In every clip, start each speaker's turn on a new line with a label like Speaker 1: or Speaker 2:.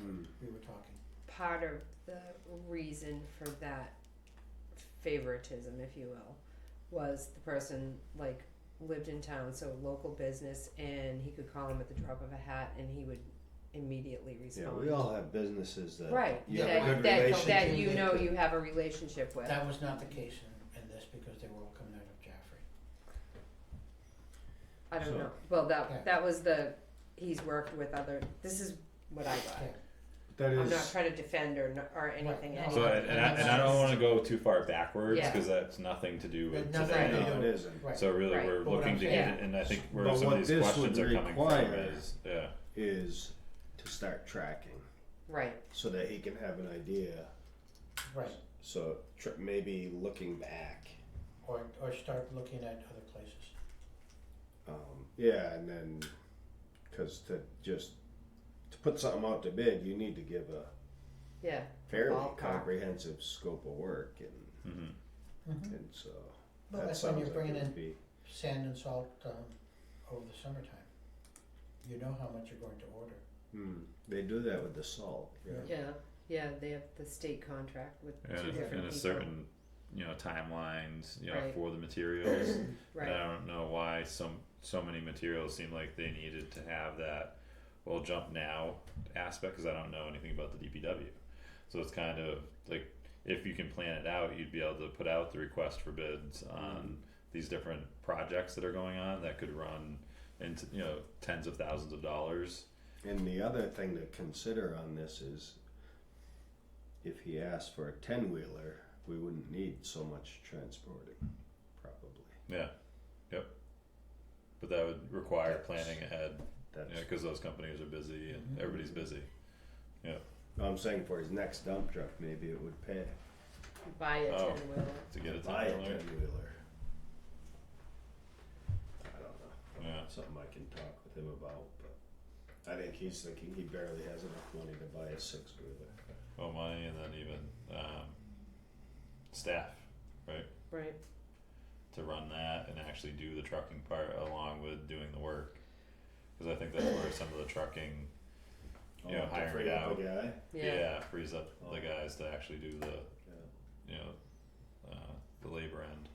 Speaker 1: Mm,
Speaker 2: we were talking.
Speaker 3: part of the reason for that favoritism, if you will, was the person like lived in town, so local business, and he could call him at the drop of a hat, and he would immediately
Speaker 1: Yeah,
Speaker 3: respond.
Speaker 1: we all have businesses that
Speaker 3: right.
Speaker 1: you
Speaker 2: Yeah,
Speaker 1: have a
Speaker 3: that,
Speaker 1: good
Speaker 3: that,
Speaker 1: relationship.
Speaker 3: that you
Speaker 2: with.
Speaker 3: know you have a relationship with.
Speaker 2: That was not the case in, in this because they were all coming out of Jaffrey.
Speaker 3: I don't
Speaker 1: So-
Speaker 3: know. Well, that
Speaker 2: Yeah.
Speaker 3: that was the he's worked with other. This is what I got.
Speaker 2: Yeah.
Speaker 1: That
Speaker 3: I'm not
Speaker 1: is,
Speaker 3: trying to defend or n- or anything.
Speaker 2: no.
Speaker 3: anyone.
Speaker 4: So and, and, I, and I don't want to go too far backwards
Speaker 3: Oh, Yeah.
Speaker 4: because that's nothing to do with
Speaker 2: But nothing
Speaker 4: today.
Speaker 2: to do
Speaker 1: no, it isn't.
Speaker 2: Right.
Speaker 4: So really,
Speaker 3: Right.
Speaker 4: we're
Speaker 2: But what
Speaker 4: looking
Speaker 2: I'm
Speaker 4: to
Speaker 2: saying-
Speaker 4: get it, and I think where
Speaker 1: But
Speaker 4: some
Speaker 1: what
Speaker 4: of these
Speaker 1: this
Speaker 4: questions
Speaker 1: would
Speaker 4: are coming from
Speaker 1: require-
Speaker 4: is, yeah,
Speaker 1: Is to start tracking
Speaker 3: Right.
Speaker 1: so that he can have an idea.
Speaker 2: Right,
Speaker 1: So tr- maybe looking back,
Speaker 2: or, or start looking at other places.
Speaker 1: um, yeah, and then because to just to put something out to bid, you need to give a
Speaker 3: Yeah.
Speaker 1: fairly
Speaker 3: Ballpark.
Speaker 1: comprehensive scope of work, and
Speaker 4: hmm
Speaker 1: and so
Speaker 2: Well,
Speaker 1: Mm-hmm. that
Speaker 2: Mm-hmm. that's when
Speaker 1: sounds
Speaker 2: you're
Speaker 1: like
Speaker 2: bringing
Speaker 1: it would
Speaker 2: in
Speaker 1: be-
Speaker 2: sand and salt, um, over the summertime. You know how much you're going to order.
Speaker 1: Hmm, they do that with the salt. Yeah.
Speaker 3: Yeah. Yeah. They have the state contract with two
Speaker 4: and,
Speaker 3: different
Speaker 4: a, and a
Speaker 3: people.
Speaker 4: certain, you know, timelines, you know,
Speaker 3: Right.
Speaker 4: for the materials.
Speaker 3: Right.
Speaker 4: And I don't know why some so many materials seem like they needed to have that well jump now aspect because I don't know anything about the DPW. So it's kind of like if you can plan it out, you'd be able to put out the request for bids on these different projects that are going on that could run into you know tens of thousands of dollars.
Speaker 1: And the other thing to consider on this is if he asked for a 10 wheeler, we wouldn't need so much transporting, probably.
Speaker 4: Yeah, yep. But that would require planning ahead
Speaker 1: That's
Speaker 4: because those companies are busy and
Speaker 2: Mhm.
Speaker 4: everybody's busy.
Speaker 1: I'm saying for his next dump truck, maybe it would pay
Speaker 3: Buy a
Speaker 4: Oh.
Speaker 3: ten wheeler.
Speaker 4: to get
Speaker 1: to
Speaker 4: it
Speaker 1: buy a 10
Speaker 4: done.
Speaker 1: wheeler. I don't know.
Speaker 4: Yeah.
Speaker 1: Something I can talk with him about, but I think he's thinking he barely has enough money to buy a six wheeler.
Speaker 4: Oh, money, and then even um, staff
Speaker 3: Right.
Speaker 4: to run that and actually do the trucking part along with doing the work. Because I think that's where some of the trucking, Yeah,
Speaker 1: Oh,
Speaker 4: hire it out.
Speaker 1: A guy.
Speaker 3: Yeah.
Speaker 4: yeah, frees up the
Speaker 1: Oh.
Speaker 4: guys to actually do the,
Speaker 1: Yeah.
Speaker 4: you know, uh, the labor end.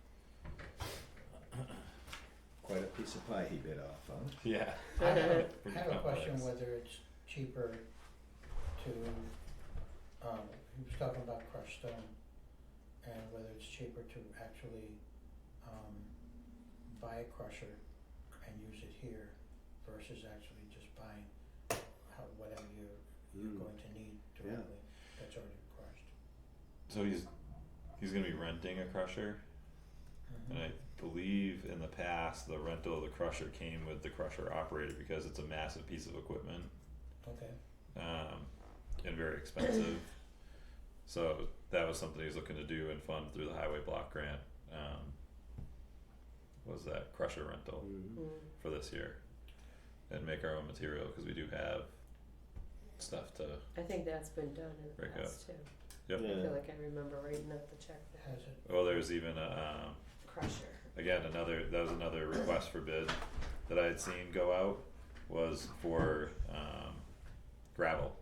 Speaker 1: Quite a piece of pie he bit off, huh?
Speaker 4: Yeah.
Speaker 2: I have a- I
Speaker 4: Pretty
Speaker 2: have a question
Speaker 4: complex.
Speaker 2: whether it's cheaper to, um, he was talking about crushed stone, and whether it's cheaper to actually, um, buy a crusher and use it here versus actually just buying how, whatever you're, you're
Speaker 1: Mm.
Speaker 4: Hmm.
Speaker 2: going to need
Speaker 1: Yeah.
Speaker 2: directly, that's already crushed.
Speaker 4: So he's he's gonna be renting a crusher, and I believe in the past the rental of the crusher came with the crusher operator because it's a massive piece of equipment.
Speaker 2: Mm-hmm. Okay,
Speaker 4: um, and very expensive. so that was something he was looking to do and fund through the highway block grant. Um, was that crusher rental
Speaker 1: Mm-hmm.
Speaker 3: Mm.
Speaker 4: for this year, and make our own material because we do have stuff to.
Speaker 3: I think that's been done in the
Speaker 4: Break up.
Speaker 3: past too.
Speaker 4: Yep.
Speaker 3: I feel like I remember writing up the check for that
Speaker 2: has it,
Speaker 4: Well, there was oh, even a um,
Speaker 3: crusher.
Speaker 4: again another that was another request for bid that I had seen go out was for um, gravel.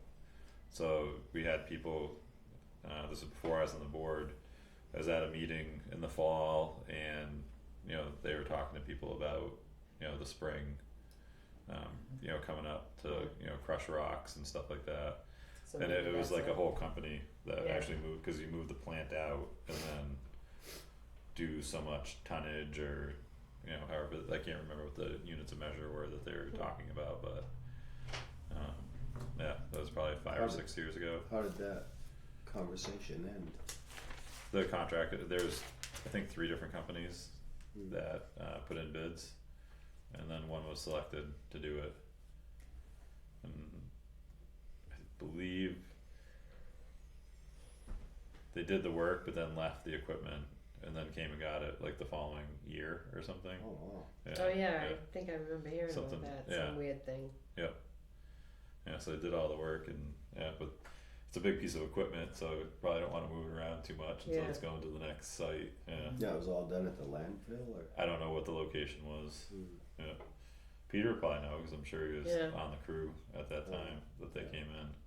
Speaker 4: So we had people. Uh, this was before I was on the board. I was at a meeting in the fall, and you know they were talking to people about you know the spring, um, you know coming up to you know crush rocks and stuff like that
Speaker 3: So
Speaker 4: and it,
Speaker 3: maybe
Speaker 4: it was
Speaker 3: that's
Speaker 4: like a whole company that
Speaker 3: Yeah.
Speaker 4: actually moved because you move the plant out and then do so much tonnage or you know however I can't remember what the units of measure were that they were talking about, but um, yeah, that was probably five or
Speaker 1: Probably.
Speaker 4: six years ago.
Speaker 1: How did that conversation end?
Speaker 4: The contract there's I think three different companies that uh, put in bids, and then one was selected to do it. And I believe they did the work, but then left the equipment, and then came and got it like the following year or something.
Speaker 1: Oh, wow.
Speaker 4: Yeah,
Speaker 3: Oh yeah, I think I remember hearing
Speaker 4: Something-
Speaker 3: about that,
Speaker 4: yeah.
Speaker 3: some weird thing.
Speaker 4: yeah. So they did all the work, and yeah, but it's a big piece of equipment, so you probably don't want to move it around too much until
Speaker 3: Yeah.
Speaker 4: it's going to the next site. Yeah,
Speaker 1: Yeah, it was all done at the landfill or?
Speaker 4: I don't know what the location was. Peter probably know because I'm sure he was
Speaker 3: Yeah.
Speaker 4: on the crew at that
Speaker 1: Oh.
Speaker 4: time that they
Speaker 1: Yeah.
Speaker 4: came in.